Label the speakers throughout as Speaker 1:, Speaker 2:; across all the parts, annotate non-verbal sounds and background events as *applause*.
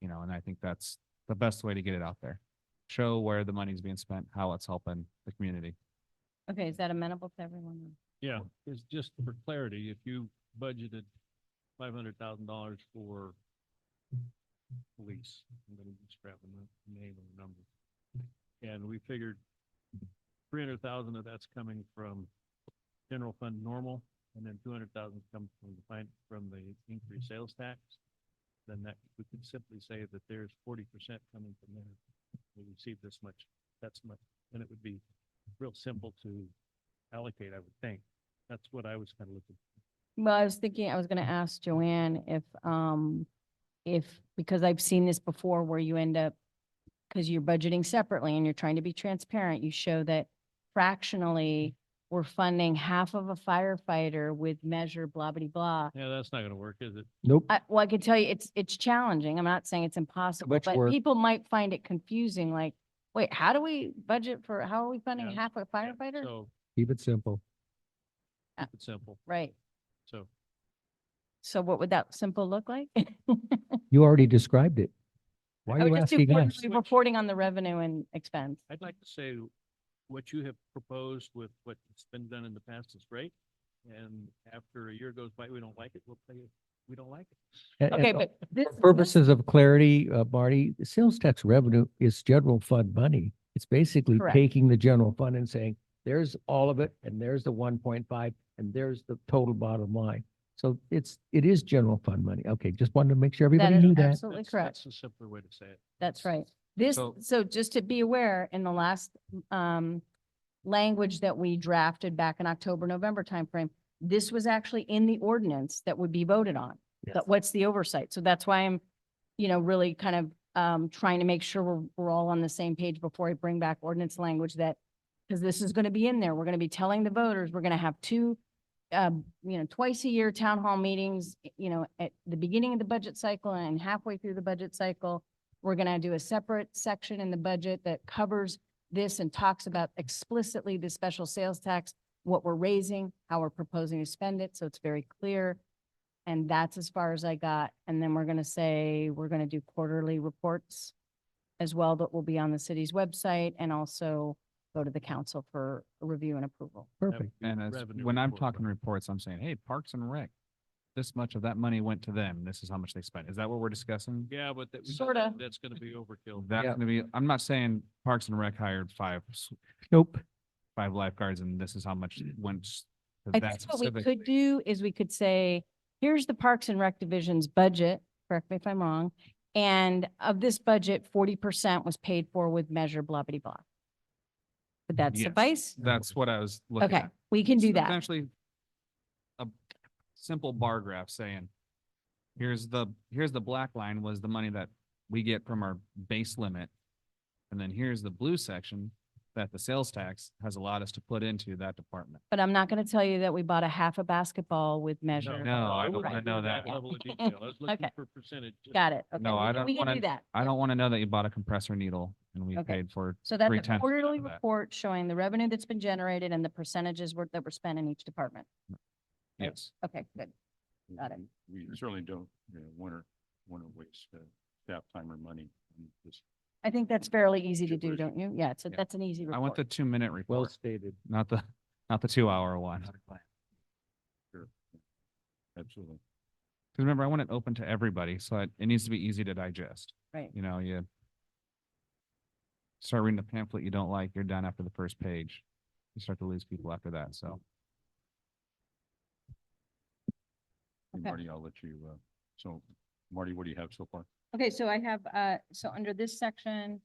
Speaker 1: you know, and I think that's the best way to get it out there. Show where the money's being spent, how it's helping the community.
Speaker 2: Okay, is that amenable to everyone?
Speaker 3: Yeah, it's just for clarity, if you budgeted five hundred thousand dollars for police, I'm gonna be scrapping the name and number. And we figured three hundred thousand of that's coming from general fund normal, and then two hundred thousand comes from the fin- from the increased sales tax. Then that, we could simply say that there's forty percent coming from there. We receive this much, that's much, and it would be real simple to allocate, I would think. That's what I was kind of looking.
Speaker 2: Well, I was thinking, I was gonna ask Joanne if, um, if, because I've seen this before where you end up, because you're budgeting separately and you're trying to be transparent, you show that fractionally, we're funding half of a firefighter with measure blah, blah, blah.
Speaker 3: Yeah, that's not gonna work, is it?
Speaker 4: Nope.
Speaker 2: I, well, I can tell you, it's, it's challenging. I'm not saying it's impossible,
Speaker 4: much
Speaker 2: but
Speaker 4: work.
Speaker 2: people might find it confusing, like, wait, how do we budget for, how are we funding
Speaker 3: Yeah.
Speaker 2: half a
Speaker 3: Yeah,
Speaker 2: firefighter?
Speaker 3: So,
Speaker 4: Keep it simple.
Speaker 3: keep it simple,
Speaker 2: Right.
Speaker 3: so.
Speaker 2: So what would that simple look like? *laughs*
Speaker 4: You already described it. Why
Speaker 2: I
Speaker 4: are you
Speaker 2: would just do
Speaker 4: asking
Speaker 2: quarterly
Speaker 4: us?
Speaker 2: Reporting on the revenue and expense.
Speaker 3: I'd like to say what you have proposed with what's been done in the past is great. And after a year goes by, we don't like it, we'll play, it. we don't like it.
Speaker 4: And-
Speaker 2: Okay,
Speaker 4: and
Speaker 2: but this.
Speaker 4: For purposes of clarity, uh, Marty, the sales tax revenue is general fund money. It's basically
Speaker 2: Correct.
Speaker 4: taking the general fund and saying, there's all of it, and there's the one point five, and there's the total bottom line. So it's, it is general fund money. Okay, just wanted to make sure
Speaker 2: That
Speaker 4: everybody
Speaker 2: is
Speaker 4: knew that.
Speaker 2: absolutely
Speaker 3: That's-
Speaker 2: correct.
Speaker 3: That's a simpler way to say it.
Speaker 2: That's right. This,
Speaker 1: So-
Speaker 2: so just to be aware, in the last, um, language that we drafted back in October, November timeframe, this was actually in the ordinance that would be voted on. But what's the oversight? So that's why I'm, you know, really kind of, um, trying to make sure we're, we're all on the same page before I bring back ordinance language that, because this is going to be in there. We're going to be telling the voters, we're going to have two, um, you know, twice a year town hall meetings, y- you know, at the beginning of the budget cycle and halfway through the budget cycle. We're going to do a separate section in the budget that covers this and talks about explicitly the special sales tax, what we're raising, how we're proposing to spend it. So it's very clear. And that's as far as I got. And then we're going to say, we're going to do quarterly reports as well that will be on the city's website and also go to the council for review and approval.
Speaker 3: That would
Speaker 4: Perfect.
Speaker 3: be
Speaker 1: And as,
Speaker 3: revenue
Speaker 1: when I'm
Speaker 3: report,
Speaker 1: talking reports, I'm saying, hey, Parks and Rec, this much of that money went to them. This is how much they spent. Is that what we're discussing?
Speaker 3: but- Yeah, but that. we-
Speaker 2: Sorta.
Speaker 3: That's gonna be overkill.
Speaker 1: That's
Speaker 4: Yeah.
Speaker 1: gonna be, I'm not saying Parks and Rec hired five, s-
Speaker 4: Nope. Mm.
Speaker 1: five lifeguards and this is how much went s-
Speaker 2: I
Speaker 1: to that
Speaker 2: think what we
Speaker 1: specific.
Speaker 2: could do is we could say, here's the Parks and Rec Division's budget, correct me if I'm wrong. And of this budget, forty percent was paid for with measure blah blah blah. Would that
Speaker 1: Yes.
Speaker 2: suffice?
Speaker 1: That's what I was looking
Speaker 2: Okay,
Speaker 1: at.
Speaker 2: we can do
Speaker 1: It's
Speaker 2: that.
Speaker 1: Essentially, a simple bar graph saying, here's the, here's the black line was the money that we get from our base limit. And then here's the blue section that the sales tax has allowed us to put into that department.
Speaker 2: But I'm not going to tell you that we bought a half a basketball with measure.
Speaker 1: No, I don't
Speaker 3: wouldn't
Speaker 1: wanna
Speaker 3: go
Speaker 1: know
Speaker 3: to
Speaker 1: that.
Speaker 3: Level of detail, I was looking
Speaker 2: *laughs* Okay.
Speaker 3: for percentage. just-
Speaker 2: Got it. Okay,
Speaker 1: No,
Speaker 2: we
Speaker 1: I
Speaker 2: can-
Speaker 1: don't
Speaker 2: We can
Speaker 1: wanna-
Speaker 2: do that.
Speaker 1: I don't want to know that you bought a compressor needle and we
Speaker 2: Okay.
Speaker 1: paid for,
Speaker 2: So that's
Speaker 1: three
Speaker 2: a
Speaker 1: tenths of
Speaker 2: quarterly
Speaker 1: that.
Speaker 2: report showing the revenue that's been generated and the percentages were- that were spent in each department. Right.
Speaker 1: yes.
Speaker 2: Okay, good. Got it.
Speaker 5: Mm-hmm. We certainly don't, you know, want to, want to waste uh, staff time or money on this.
Speaker 2: I think that's fairly easy to
Speaker 5: Your
Speaker 2: do,
Speaker 5: version.
Speaker 2: don't you? Yeah, it's, a-
Speaker 1: Yeah.
Speaker 2: that's an easy report.
Speaker 1: I want the two minute
Speaker 4: Well
Speaker 1: report,
Speaker 4: stated.
Speaker 1: not the, not the two hour one. Cause
Speaker 5: Absolutely.
Speaker 1: remember, I want it open to everybody, so it, it needs to be easy to digest.
Speaker 2: Right.
Speaker 1: You know, you start reading the pamphlet you don't like, you're done after the first page. You start to lose people after that, so.
Speaker 5: And
Speaker 2: Okay.
Speaker 5: Marty, I'll let you, uh, so Marty, what do you have so far?
Speaker 2: Okay, so I have, uh, so under this section,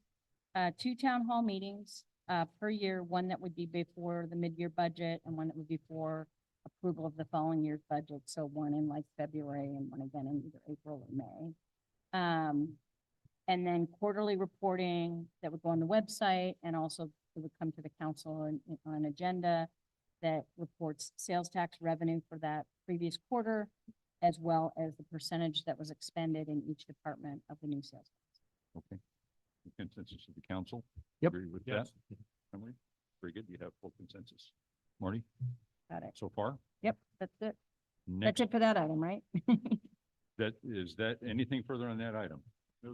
Speaker 2: uh, two town hall meetings, uh, per year, one that would be before the mid-year budget and one that would be for approval of the following year's budget. So one in like February and one again in either April or May. Um, and then quarterly reporting that would go on the website and also it would come to the council and and on an agenda that reports sales tax revenue for that previous quarter as well as the percentage that was expended in each department of the new sales.
Speaker 5: Okay. The Consensus of the council?
Speaker 4: Yep.
Speaker 5: Agree with that?
Speaker 3: Yes.
Speaker 5: Emily? Very good. You have full consensus. Marty,
Speaker 2: Got it.
Speaker 5: so far?
Speaker 2: Yep, that's it. That's
Speaker 5: Next,
Speaker 2: it for that item, right?
Speaker 5: that, is that, anything further on that item?